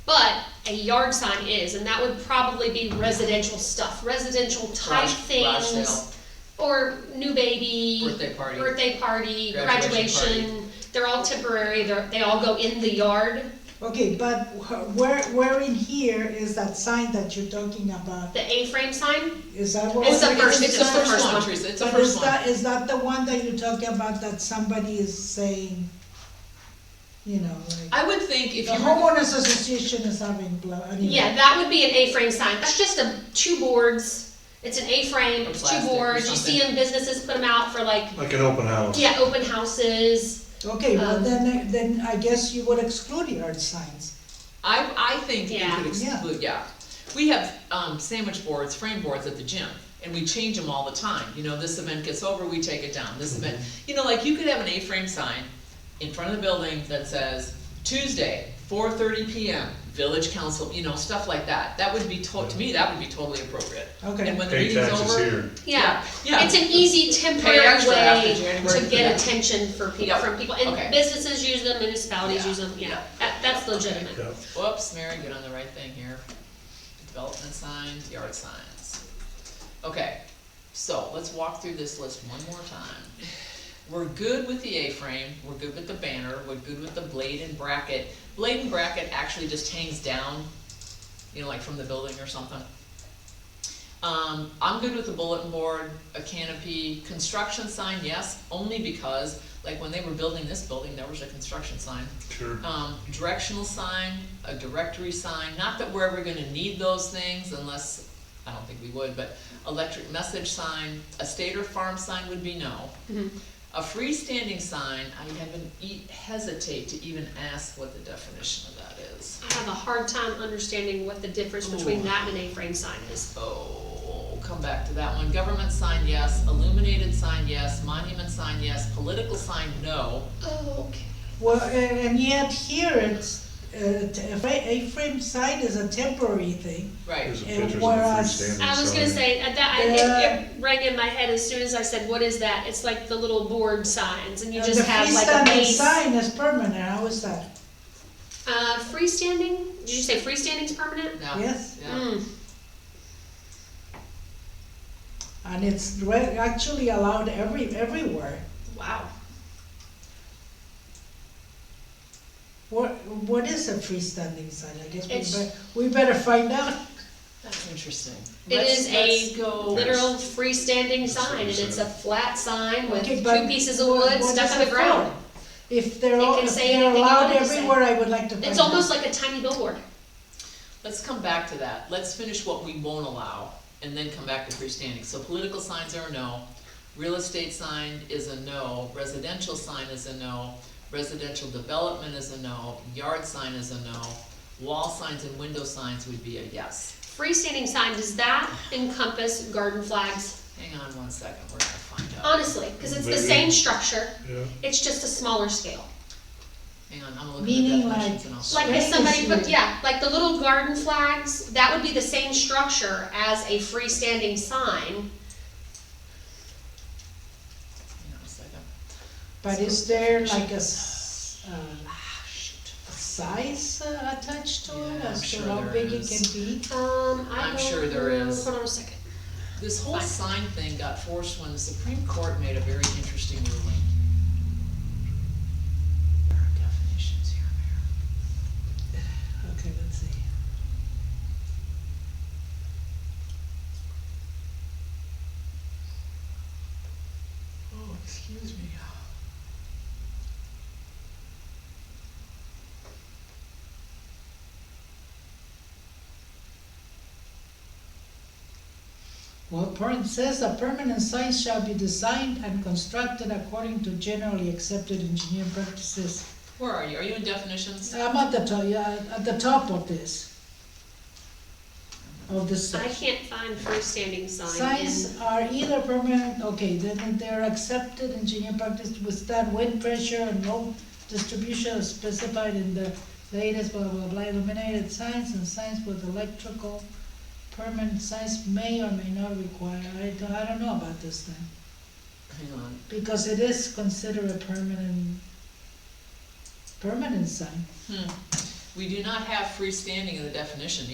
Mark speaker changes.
Speaker 1: a yard sign is, and that would probably be residential stuff, residential type
Speaker 2: Garage- garage sale.
Speaker 1: things. Or new baby.
Speaker 2: Birthday party.
Speaker 1: Birthday party,
Speaker 2: Graduation
Speaker 1: graduation, they're all temporary, they're, they all go in the yard,
Speaker 3: Okay, but wh- where, where in here is that sign that you're talking about?
Speaker 1: the A-frame sign,
Speaker 2: Mm-hmm.
Speaker 3: Is that what?
Speaker 1: It's the
Speaker 2: It's
Speaker 1: first-
Speaker 2: it's the first one, Teresa, it's the
Speaker 3: But is
Speaker 2: first one.
Speaker 3: that, is that the one that you're talking about that somebody is saying, you know, like,
Speaker 2: I would think if
Speaker 3: the
Speaker 2: you were,
Speaker 3: homeowners association is having blow, I mean.
Speaker 1: yeah, that would be an A-frame sign, that's just a, two boards, it's an A-frame,
Speaker 2: Or
Speaker 1: it's two
Speaker 2: plastic or
Speaker 1: boards, you see in businesses put them out for like,
Speaker 4: Like an open house.
Speaker 1: yeah, open houses.
Speaker 3: Okay, well,
Speaker 1: Um,
Speaker 3: then, then I guess you would exclude yard signs.
Speaker 2: I, I think we
Speaker 1: Yeah.
Speaker 2: could exclude, yeah. We have, um, sandwich boards, frame boards at the gym, and we change them all the time, you know, this event gets over, we take it down, this event.
Speaker 3: Mm-hmm.
Speaker 2: You know, like you could have an A-frame sign in front of the building that says, Tuesday, four thirty PM, village council, you know, stuff like that. That would be to, to me, that would be totally appropriate.
Speaker 3: Okay.
Speaker 2: And when the
Speaker 4: Pay
Speaker 2: meeting's
Speaker 4: taxes
Speaker 2: over,
Speaker 4: here.
Speaker 1: Yeah,
Speaker 2: Yeah.
Speaker 1: it's an easy
Speaker 2: Pay
Speaker 1: temporary
Speaker 2: extra after
Speaker 1: way
Speaker 2: January
Speaker 1: to
Speaker 2: for
Speaker 1: get
Speaker 2: that.
Speaker 1: attention for people,
Speaker 2: Yeah.
Speaker 1: from people,
Speaker 2: Okay.
Speaker 1: and businesses use them, municipalities
Speaker 2: Yeah.
Speaker 1: use them, yeah,
Speaker 2: Yeah.
Speaker 1: that, that's legitimate.
Speaker 4: Yeah.
Speaker 2: Whoops, Mary, get on the right thing here. Development signs, yard signs. Okay, so let's walk through this list one more time. We're good with the A-frame, we're good with the banner, we're good with the blade and bracket. Blade and bracket actually just hangs down, you know, like from the building or something. Um, I'm good with the bulletin board, a canopy, construction sign, yes, only because, like, when they were building this building, there was a construction sign
Speaker 4: Sure.
Speaker 2: um, directional sign, a directory sign, not that we're ever gonna need those things unless, I don't think we would, but electric message sign, a state or farm sign would be no.
Speaker 1: Mhm.
Speaker 2: A freestanding sign, I haven't, e- hesitate to even ask what the definition of that is.
Speaker 1: I have a hard time understanding what the difference between
Speaker 2: Ooh.
Speaker 1: that and an A-frame sign is.
Speaker 2: Oh, come back to that one, government sign, yes, illuminated sign, yes, monument sign, yes, political sign, no.
Speaker 1: Oh, okay.
Speaker 3: Well, a- and yet here it's, uh, t- a fra- a frame sign is a temporary thing.
Speaker 2: Right,
Speaker 4: There's a
Speaker 3: And
Speaker 4: pictures of the
Speaker 3: whereas-
Speaker 4: freestanding sign.
Speaker 1: I was gonna say, uh, that, I, it,
Speaker 3: Yeah.
Speaker 1: it rang in my head as soon as I said, what is that? It's like the little board signs, and you
Speaker 3: And
Speaker 1: just have like a
Speaker 3: Uh, The freestanding
Speaker 1: base.
Speaker 3: sign is permanent, how is that?
Speaker 1: Uh, freestanding, did you say freestanding's permanent?
Speaker 2: no.
Speaker 3: Yes.
Speaker 2: Yeah,
Speaker 1: Mm.
Speaker 3: And it's re- actually allowed every, everywhere.
Speaker 1: Wow.
Speaker 3: What, what is a freestanding sign? I guess
Speaker 1: It's-
Speaker 3: we bet, we better find out.
Speaker 2: that's interesting.
Speaker 1: It
Speaker 2: Let's-
Speaker 1: is a
Speaker 2: let's go-
Speaker 1: Literal freestanding sign, and it's a flat sign with
Speaker 3: Okay,
Speaker 1: two
Speaker 3: but
Speaker 1: pieces of
Speaker 3: what-
Speaker 1: wood
Speaker 3: what
Speaker 1: stuck
Speaker 3: is
Speaker 1: on
Speaker 3: it
Speaker 1: the ground.
Speaker 3: for? If they're,
Speaker 1: It
Speaker 3: all-
Speaker 1: can
Speaker 3: if
Speaker 1: say
Speaker 3: they're
Speaker 1: anything you
Speaker 3: allowed
Speaker 1: want it to say.
Speaker 3: everywhere, I would like to find out.
Speaker 1: It's almost like a tiny billboard.
Speaker 2: Let's come back to that. Let's finish what we won't allow and then come back to freestanding. So political signs are a no. Real estate sign is a no. Residential sign is a no. Residential development is a no. Yard sign is a no. Wall signs and window signs would be a yes.
Speaker 1: Freestanding sign, does that encompass garden flags?
Speaker 2: Hang on one second, we're gonna find out.
Speaker 1: Honestly, because it's the
Speaker 4: Maybe.
Speaker 1: same structure,
Speaker 4: Yeah.
Speaker 1: it's just a smaller scale.
Speaker 2: Hang on, I'm gonna look at the
Speaker 3: Meaning like-
Speaker 2: definitions and I'll.
Speaker 1: Like if
Speaker 3: Right,
Speaker 1: somebody
Speaker 3: it's
Speaker 1: put,
Speaker 3: weird.
Speaker 1: yeah, like the little garden flags, that would be the same structure as a freestanding sign.
Speaker 2: Hang on a second.
Speaker 3: But is there like a, s- uh, size uh, attached to it,
Speaker 2: Yeah, I'm
Speaker 3: as to
Speaker 2: sure
Speaker 3: how
Speaker 2: there
Speaker 3: big it
Speaker 2: is.
Speaker 3: can be?
Speaker 1: Um, I
Speaker 2: I'm
Speaker 1: don't
Speaker 2: sure there
Speaker 1: know.
Speaker 2: is.
Speaker 1: Hold on a second.
Speaker 2: This whole sign thing got forced when the Supreme Court made a very interesting ruling. There are definitions here, Mayor.
Speaker 3: Okay, let's see.
Speaker 2: Oh, excuse me.
Speaker 3: Well, Perrin says a permanent sign shall be designed and constructed according to generally accepted engineering practices.
Speaker 2: Where are you? Are you in definitions?
Speaker 3: I'm at the top, yeah, at the top of this. Of this
Speaker 1: I
Speaker 3: section.
Speaker 1: can't find freestanding sign in.
Speaker 3: Signs are either permanent, okay, then they're accepted engineering practice to withstand wind pressure and load distribution as specified in the latest blah blah blah illuminated signs and signs with electrical permanent signs may or may not require, I don't, I don't know about this thing.
Speaker 2: Hang on.
Speaker 3: Because it is considered a permanent, permanent sign.
Speaker 2: Hmm. We do not have freestanding in the definition